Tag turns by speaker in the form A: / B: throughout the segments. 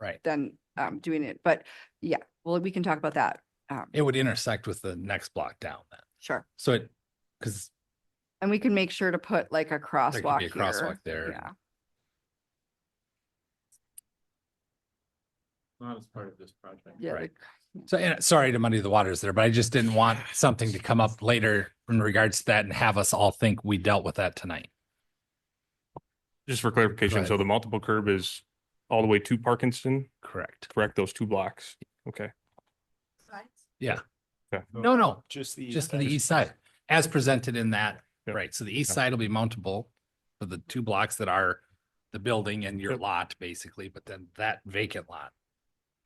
A: Right.
B: than um doing it, but yeah, well, we can talk about that. Um,
A: It would intersect with the next block down then.
B: sure.
A: So it, because
B: And we can make sure to put like a
A: there could
B: crosswalk
A: be a
B: here.
A: crosswalk there.
B: Yeah,
C: Not as part of this project.
B: yeah,
A: Right.
B: the-
A: So, and sorry to muddy the waters there, but I just didn't want something to come up later in regards to that and have us all think we dealt with that tonight.
D: Just for clarification,
A: ahead.
D: so the multiple curb is all the way to Parkinson,
A: Correct.
D: correct? Those two blocks? Okay.
A: No, no,
C: Just the.
A: just to the east side, as presented in that,
D: Yeah.
A: right, so the east
D: Yeah.
A: side will be mountable for the two blocks that are the building and your
D: Yep.
A: lot, basically, but then that vacant lot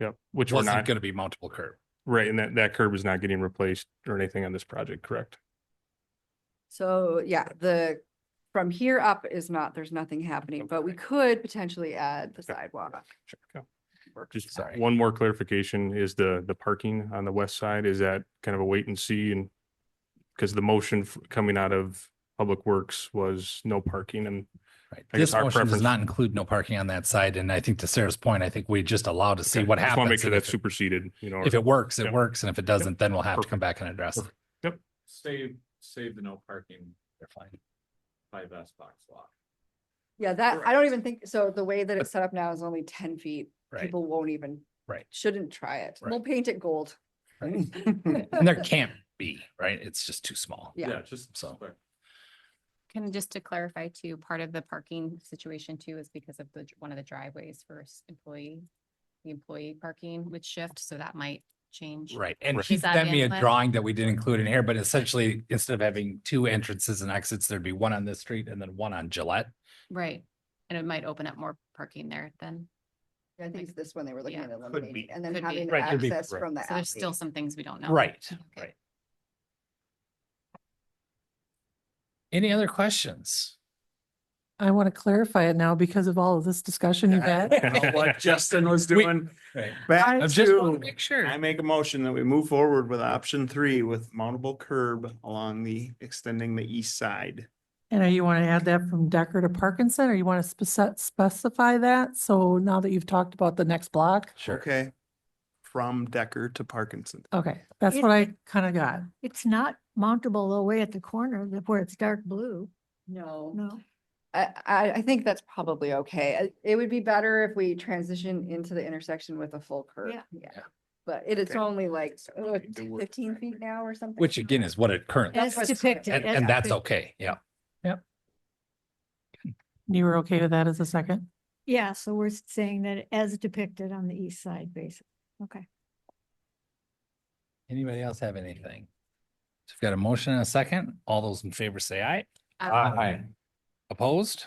D: Yep. Which we're
A: wasn't
D: not,
A: gonna be mountable curb.
D: right, and that, that curb is not getting replaced or anything on this project, correct?
B: So, yeah, the, from here up is not, there's nothing happening, but we could potentially add the
D: Okay.
B: sidewalk.
D: Sure. Okay.
B: work
D: Just
A: Sorry.
D: one more clarification is the, the parking on the west side, is that kind of a wait and see and because the motion f- coming out of Public Works was no parking and
A: Right.
D: I guess
A: This
D: our
A: motion does
D: preference-
A: not include no parking on that side, and I think to Sarah's point, I think we just allow to see
D: Okay,
A: what
D: just wanna
A: happens.
D: Make sure
A: and if
D: that's
A: it-
D: superseded, you know.
A: If
D: or-
A: it works, it
D: Yep.
A: works, and if it doesn't, then we'll have to come back and address it.
D: Perfect.
C: Save, save the no parking
A: They're fine.
C: by best box lot.
B: Yeah, that, I don't even think, so the way that it's set up now is only ten feet.
A: Right,
B: People won't even.
A: Right.
B: Shouldn't try it.
A: Right.
B: We'll paint it gold.
A: and there can't be, right, it's just too small.
B: Yeah.
C: Just.
A: So-
C: but
E: Can just to clarify too, part of the parking situation too is because of the, dr- one of the driveways for s- employee, the employee parking would shift, so that might change.
A: Right, and
D: Right.
A: he
E: Is that
A: sent me a
E: inlet?
A: drawing that we didn't include in here, but essentially, instead of having two entrances and exits, there'd be one on this street and then one on Gillette.
E: Right, and it might open up more parking there then.
B: I think it's this one they were looking
E: Yeah.
B: at
C: Could
B: eliminating
C: be.
B: and then
E: Could be.
B: having
A: Right, could be.
B: access
D: Right.
B: from the
E: So there's still
B: alley.
E: some things we don't know.
A: Right,
E: Oh, Okay.
A: right. Any other questions?
F: I want to clarify it now because of all of this discussion you've had.
C: What Justin was
A: We-
C: doing
A: Right.
C: back
A: I just want to
C: to,
A: make sure.
C: I make a motion that we move forward with option three with mountable curb along the, extending the east side.
F: And are you want to add that from Decker to Parkinson or you want to spec- specify that? So now that you've talked about the next block,
A: Sure.
C: Okay. From Decker to Parkinson.
F: okay, that's
G: It-
F: what I kind of got.
G: It's not mountable away at the corner that- where it's dark blue,
E: No,
G: no.
B: I, I, I think that's probably okay. I- It would be better if we transition into the intersection with a full curve.
G: Yeah.
B: Yeah.
A: Yeah.
B: But it is
C: Okay.
B: only like
C: So we
B: uh,
C: need to work
B: fifteen
C: back.
B: feet now or something.
A: Which again is what it currently,
B: That's what's-
G: As depicted.
A: and,
B: yeah.
G: as
A: and that's
G: depicted.
A: okay, yeah.
F: You were okay with that as a second?
G: Yeah, so we're saying that as depicted on the east side, basically. Okay.
A: Anybody else have anything? So we've got a motion and a second. All those in favor say aye.
E: I-
A: Opposed?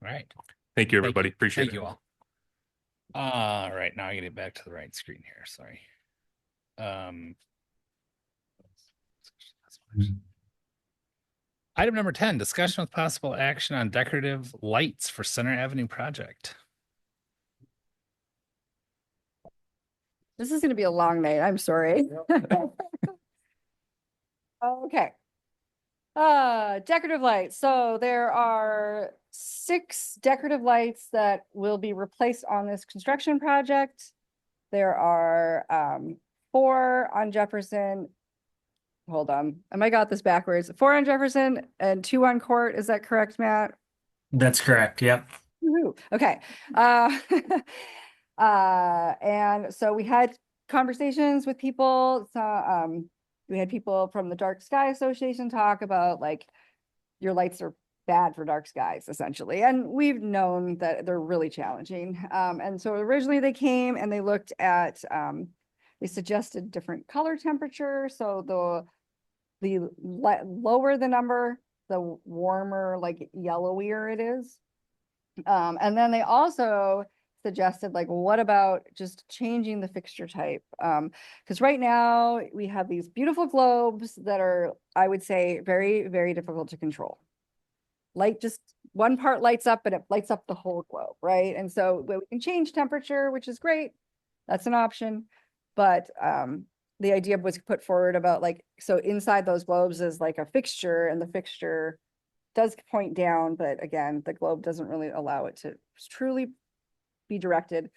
A: All right.
D: Thank you, everybody. Appreciate it.
A: Thank you all. All right, now I get it back to the right screen here, sorry. Um. Item number ten, discussion with possible action on decorative lights for Center Avenue project.
B: This is gonna be a long night, I'm sorry. Okay. Uh, decorative lights, so there are six decorative lights that will be replaced on this construction project. There are, um, four on Jefferson. Hold on, I might got this backwards, four on Jefferson and two on Court, is that correct, Matt?
H: That's correct. Yep.
B: Woo-hoo. Okay. Uh, uh, and so we had conversations with people. So, um, we had people from the Dark Sky Association talk about like your lights are bad for dark skies essentially. And we've known that they're really challenging. Um, and so originally they came and they looked at, um, they suggested different color temperature. So the the le- lower the number, the warmer, like yellowier it is. Um, and then they also suggested like, what about just changing the fixture type? Um, because right now we have these beautiful globes that are, I would say, very, very difficult to control. Light just one part lights up and it lights up the whole globe, right? And so we we can change temperature, which is great. That's an option. But um, the idea was put forward about like, so inside those globes is like a fixture and the fixture does point down, but again, the globe doesn't really allow it to truly be directed.